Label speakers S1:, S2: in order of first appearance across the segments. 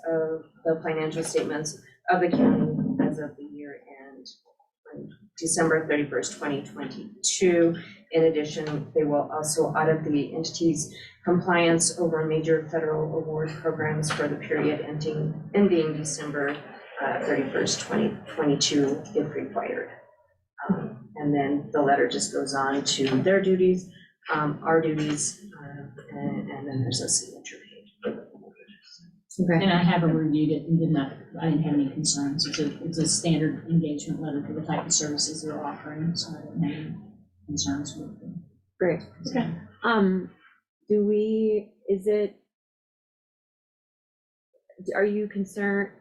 S1: of the financial statements of the county as of the year end on December thirty-first, twenty twenty-two. In addition, they will also audit the entity's compliance over major federal award programs for the period ending, ending December uh, thirty-first, twenty twenty-two, if required. Um, And then the letter just goes on to their duties, um, our duties, uh, and, and then there's a signature page.
S2: Okay,
S3: And I haven't reviewed it and did not, I didn't have any concerns. It's a, it's a standard engagement letter for the type of services they're offering, so I didn't have any concerns with it.
S2: great.
S3: Okay.
S2: Um, do we, is it? Are you concerned,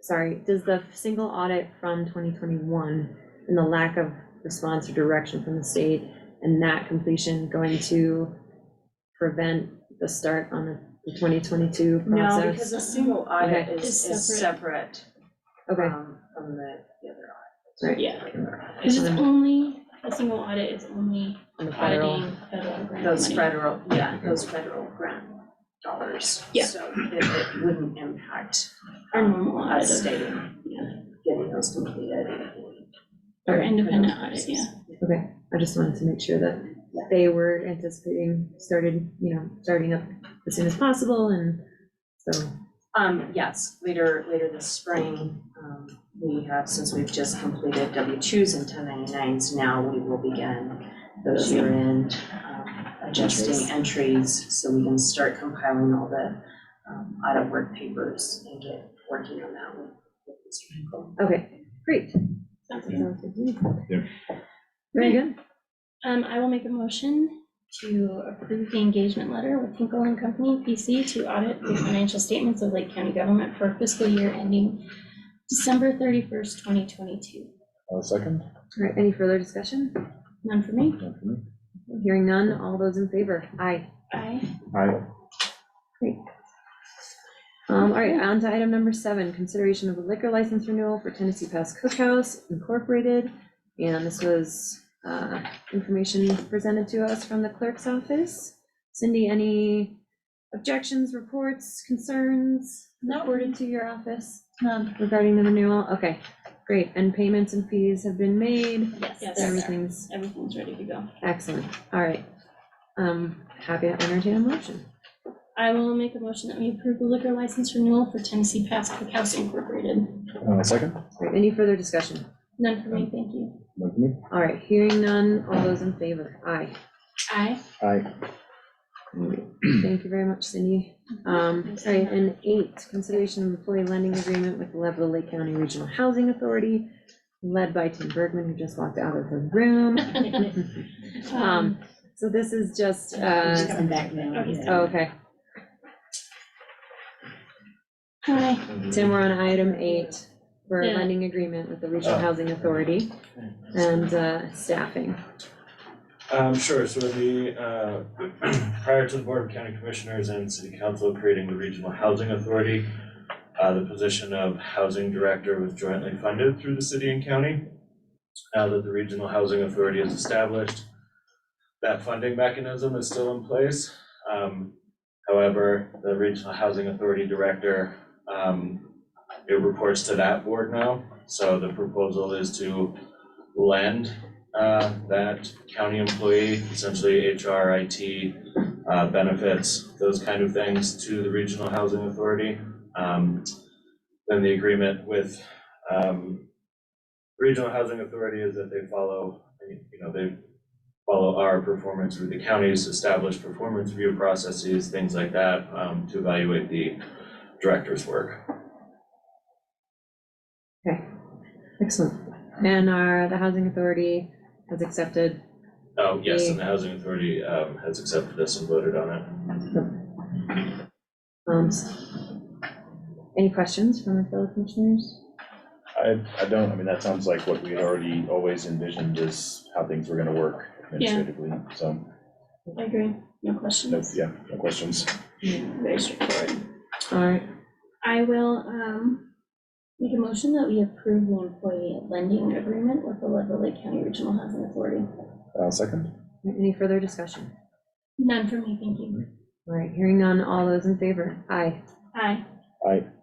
S2: sorry, does the single audit from twenty twenty-one and the lack of response or direction from the state and that completion going to prevent the start on the twenty twenty-two
S1: No, because
S2: process?
S1: a single audit
S2: Okay.
S1: is,
S3: Is
S1: is separate
S2: Okay,
S1: um, from the the other audit.
S4: Yeah, because
S2: so
S4: it's
S2: then
S4: only, a single audit is only
S2: on the federal,
S4: auditing federal grant
S1: Those
S4: money.
S1: federal, yeah, those federal grant dollars.
S4: Yeah.
S1: So it, it wouldn't impact
S4: Our normal audit
S1: us
S4: of-
S1: staying,
S4: yeah.
S1: getting those completed.
S4: Our independent audit, yeah.
S2: okay, I just wanted to make sure that they were anticipating started, you know, starting up as soon as possible and so.
S1: Um, yes, later, later this spring, um, we have, since we've just completed W twos and ten ninety-nines, now we will begin those year-end um, adjusting entries, so we can start compiling all the um, audit work papers and get working on that with with Mr. Hinkle.
S2: Okay, great.
S4: Sounds good.
S2: Sounds good to me.
S5: Yeah.
S2: Very good.
S4: Um, I will make a motion to approve the engagement letter with Hinkle and Company, PC, to audit the financial statements of Lake County government for fiscal year ending December thirty-first, twenty twenty-two.
S5: Uh, second?
S2: All right, any further discussion?
S4: None for me?
S5: Not for me.
S2: Hearing none, all those in favor? Aye.
S4: Aye.
S5: Aye.
S2: Um, all right, on to item number seven, consideration of a liquor license renewal for Tennessee Pass Cookhouse Incorporated. And this was, uh, information presented to us from the clerk's office. Cindy, any objections, reports, concerns?
S3: No.
S2: Reported to your office
S3: None.
S2: regarding the renewal? Okay, great. And payments and fees have been made.
S4: Yes,
S2: So Everything's
S4: everything's ready to go.
S2: Excellent, all right. Um, happy to entertain a motion.
S4: I will make a motion that we approve the liquor license renewal for Tennessee Pass Cookhouse Incorporated.
S5: Uh, second?
S2: All right, Any further discussion?
S4: None for me, thank you.
S5: Not for me.
S2: All right, hearing none, all those in favor, aye.
S4: Aye.
S5: Aye.
S2: All right, Thank you very much, Cindy. Um, sorry, and eight, consideration of employee lending agreement with Level Lake County Regional Housing Authority, led by Tim Bergman, who just walked out of the room. Um, so this is just,
S3: He's
S2: uh,
S3: coming back now.
S4: Oh, he's
S2: oh, okay,
S4: Aye.
S2: Tim, we're on item eight, for a
S4: Yeah.
S2: lending agreement with the Regional Housing Authority and, uh, staffing.
S6: Um, sure, so the, uh, prior to the Board of County Commissioners and City Council creating the Regional Housing Authority, uh, the position of Housing Director was jointly funded through the city and county. Now that the Regional Housing Authority is established, that funding mechanism is still in place. Um, however, the Regional Housing Authority Director, um, it reports to that board now. So the proposal is to lend uh, that county employee, essentially HR, IT, uh, benefits, those kind of things to the Regional Housing Authority. Um, Then the agreement with um, Regional Housing Authority is that they follow, you know, they follow our performance with the county's established performance review processes, things like that, um, to evaluate the director's work.
S2: Excellent. And our, the housing authority has accepted,
S6: Oh, yes, and the Housing Authority um, has accepted this and voted on it.
S2: um, s- any questions from the fellow commissioners?
S5: I, I don't, I mean, that sounds like what we had already always envisioned is how things were gonna work administratively, so,
S4: I agree, no question.
S5: no, yeah, no questions.
S4: Very straightforward.
S2: All right,
S4: I will, um, make a motion that we approve the employee lending agreement with the Leadville Lake County Regional Housing Authority.
S5: Uh, second?
S2: any further discussion?
S4: None for me, thank you.
S2: All right, hearing none, all those in favor? Aye.
S4: Aye.
S5: Aye.